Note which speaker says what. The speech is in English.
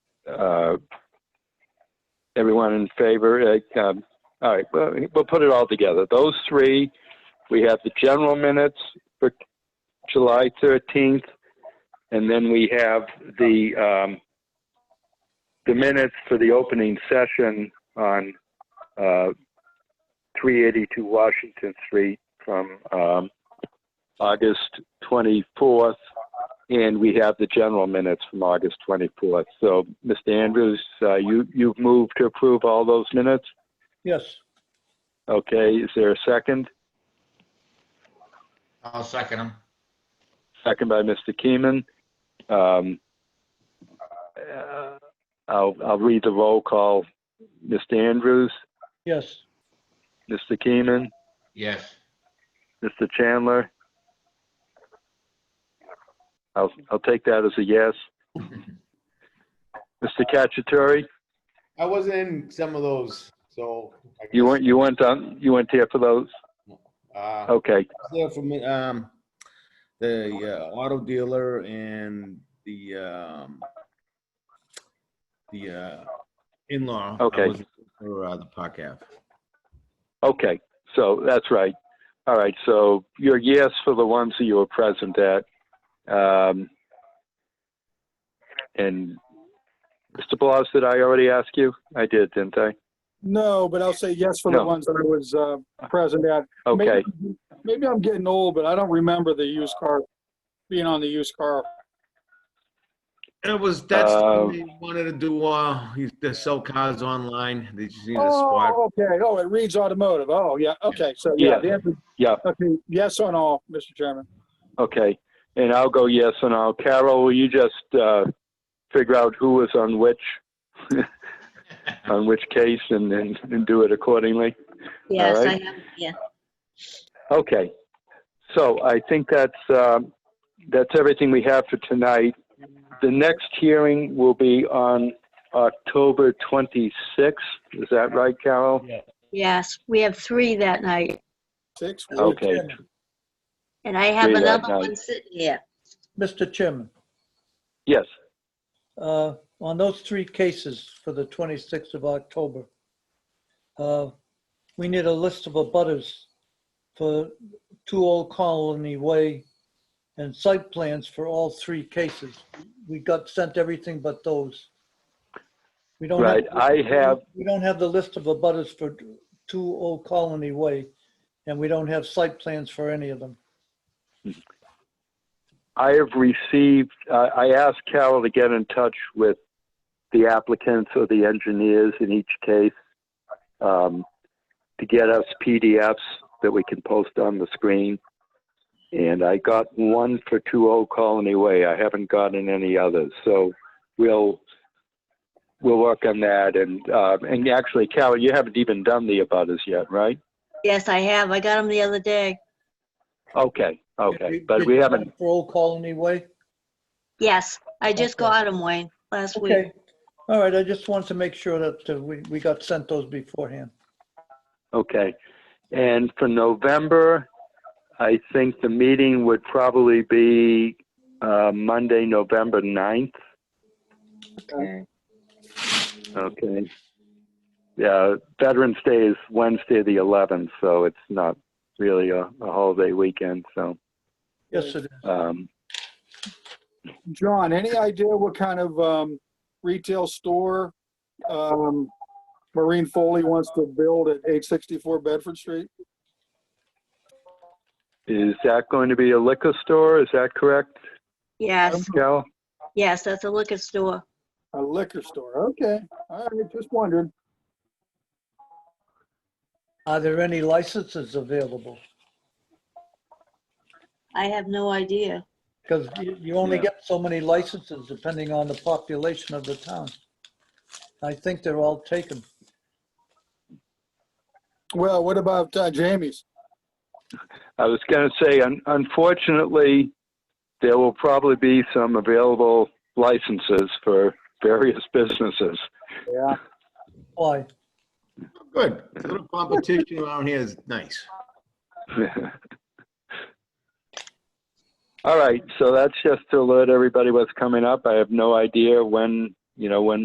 Speaker 1: uh, everyone in favor? Uh, um, All right, well, we'll put it all together. Those three, we have the general minutes for July 13th, and then we have the, um, the minutes for the opening session on uh, 382 Washington Street from um, August 24th, and we have the general minutes from August 24th. So, Mr. Andrews, uh, you, you've moved to approve all those minutes?
Speaker 2: Yes.
Speaker 1: Okay, is there a second?
Speaker 3: I'll second him.
Speaker 1: Second by Mr. Keeman. Um, uh, I'll, I'll read the roll call. Mr. Andrews,
Speaker 2: Yes.
Speaker 1: Mr. Keeman,
Speaker 3: Yes.
Speaker 1: Mr. Chandler? I'll, I'll take that as a yes. Mr. Cacciatore,
Speaker 4: I was in some of those, so. I
Speaker 1: you
Speaker 4: guess,
Speaker 1: went, you went on, you went there for those?
Speaker 4: uh,
Speaker 1: Okay,
Speaker 4: there for me, um, the uh, auto dealer and the, um, the, uh, in-law. I
Speaker 1: Okay.
Speaker 4: was For, uh, the Park Ave.
Speaker 1: okay, so that's right. All right, so your yes for the ones that you were present at. Um, and Mr. Blas, did I already ask you? I did, didn't I?
Speaker 2: No, but I'll say yes for the
Speaker 1: No.
Speaker 2: ones that I was uh, present at.
Speaker 1: Okay,
Speaker 2: Maybe- Maybe I'm getting old, but I don't remember the used car, being on the used car.
Speaker 4: It was, that's, the
Speaker 1: Uh,
Speaker 4: one they wanted to do, uh, you- they sell cars online, they just need a spot.
Speaker 2: Oh, okay. Oh, it reads automotive. Oh, yeah. Okay. So, yeah.
Speaker 1: Yeah.
Speaker 2: the answer-
Speaker 1: Yeah.
Speaker 2: Okay. Yes on all, Mr. Chairman.
Speaker 1: okay. And I'll go yes and I'll, Carol, will you just, uh, figure out who was on which, on which case and, and, and do it accordingly?
Speaker 5: Yes, I
Speaker 1: right.
Speaker 5: have, yeah.
Speaker 1: Okay, so I think that's, um, that's everything we have for tonight. The next hearing will be on October 26th. Is that right, Carol?
Speaker 5: Yes, we have three that night,
Speaker 2: Six.
Speaker 1: Okay.
Speaker 5: and I have
Speaker 1: Three that
Speaker 5: another
Speaker 1: night.
Speaker 5: one sitting here.
Speaker 6: Mr. Chairman,
Speaker 1: Yes,
Speaker 6: uh, on those three cases for the 26th of October, uh, we need a list of abutters for Two Old Colony Way and site plans for all three cases. We got sent everything but those. We don't have-
Speaker 1: right. I have,
Speaker 6: We don't have the list of abutters for Two Old Colony Way, and we don't have site plans for any of them.
Speaker 1: I have received, uh, I asked Carol to get in touch with the applicants or the engineers in each case um, to get us PDFs that we can post on the screen. And I got one for 2 Colony Way. I haven't gotten any others. So we'll, we'll work on that. And, uh, and actually, Carol, you haven't even done the abutters yet, right?
Speaker 5: Yes, I have. I got them the other day.
Speaker 1: Okay, okay. But
Speaker 6: Did
Speaker 1: we
Speaker 6: you
Speaker 1: haven't,
Speaker 6: For Old Colony Way?
Speaker 5: Yes, I just
Speaker 6: Okay.
Speaker 5: got them, Wayne, last week.
Speaker 6: Okay, all right, I just wanted to make sure that uh, we, we got sent those beforehand.
Speaker 1: Okay. And for November, I think the meeting would probably be uh, Monday, November 9th.
Speaker 5: Okay.
Speaker 1: Okay. Yeah, Veterans Day is Wednesday, the 11th, so it's not really a a holiday weekend, so.
Speaker 6: Yes, it is.
Speaker 1: um,
Speaker 2: John, any idea what kind of um, retail store um, Maureen Foley wants to build at 864 Bedford Street?
Speaker 1: Is that going to be a liquor store? Is that correct,
Speaker 5: Yes,
Speaker 1: Cal?
Speaker 5: yes, that's a liquor store.
Speaker 2: A liquor store. Okay. All right. Just wondered.
Speaker 6: Are there any licenses available?
Speaker 5: I have no idea.
Speaker 6: Because you, you only
Speaker 1: Yeah.
Speaker 6: get so many licenses depending on the population of the town. I think they're all taken.
Speaker 2: Well, what about uh, Jamie's?
Speaker 1: I was going to say, un- unfortunately, there will probably be some available licenses for various businesses.
Speaker 2: Yeah.
Speaker 6: Why?
Speaker 4: Good, a little competition around here is nice.
Speaker 1: All right, so that's just to alert everybody what's coming up. I have no idea when, you know, when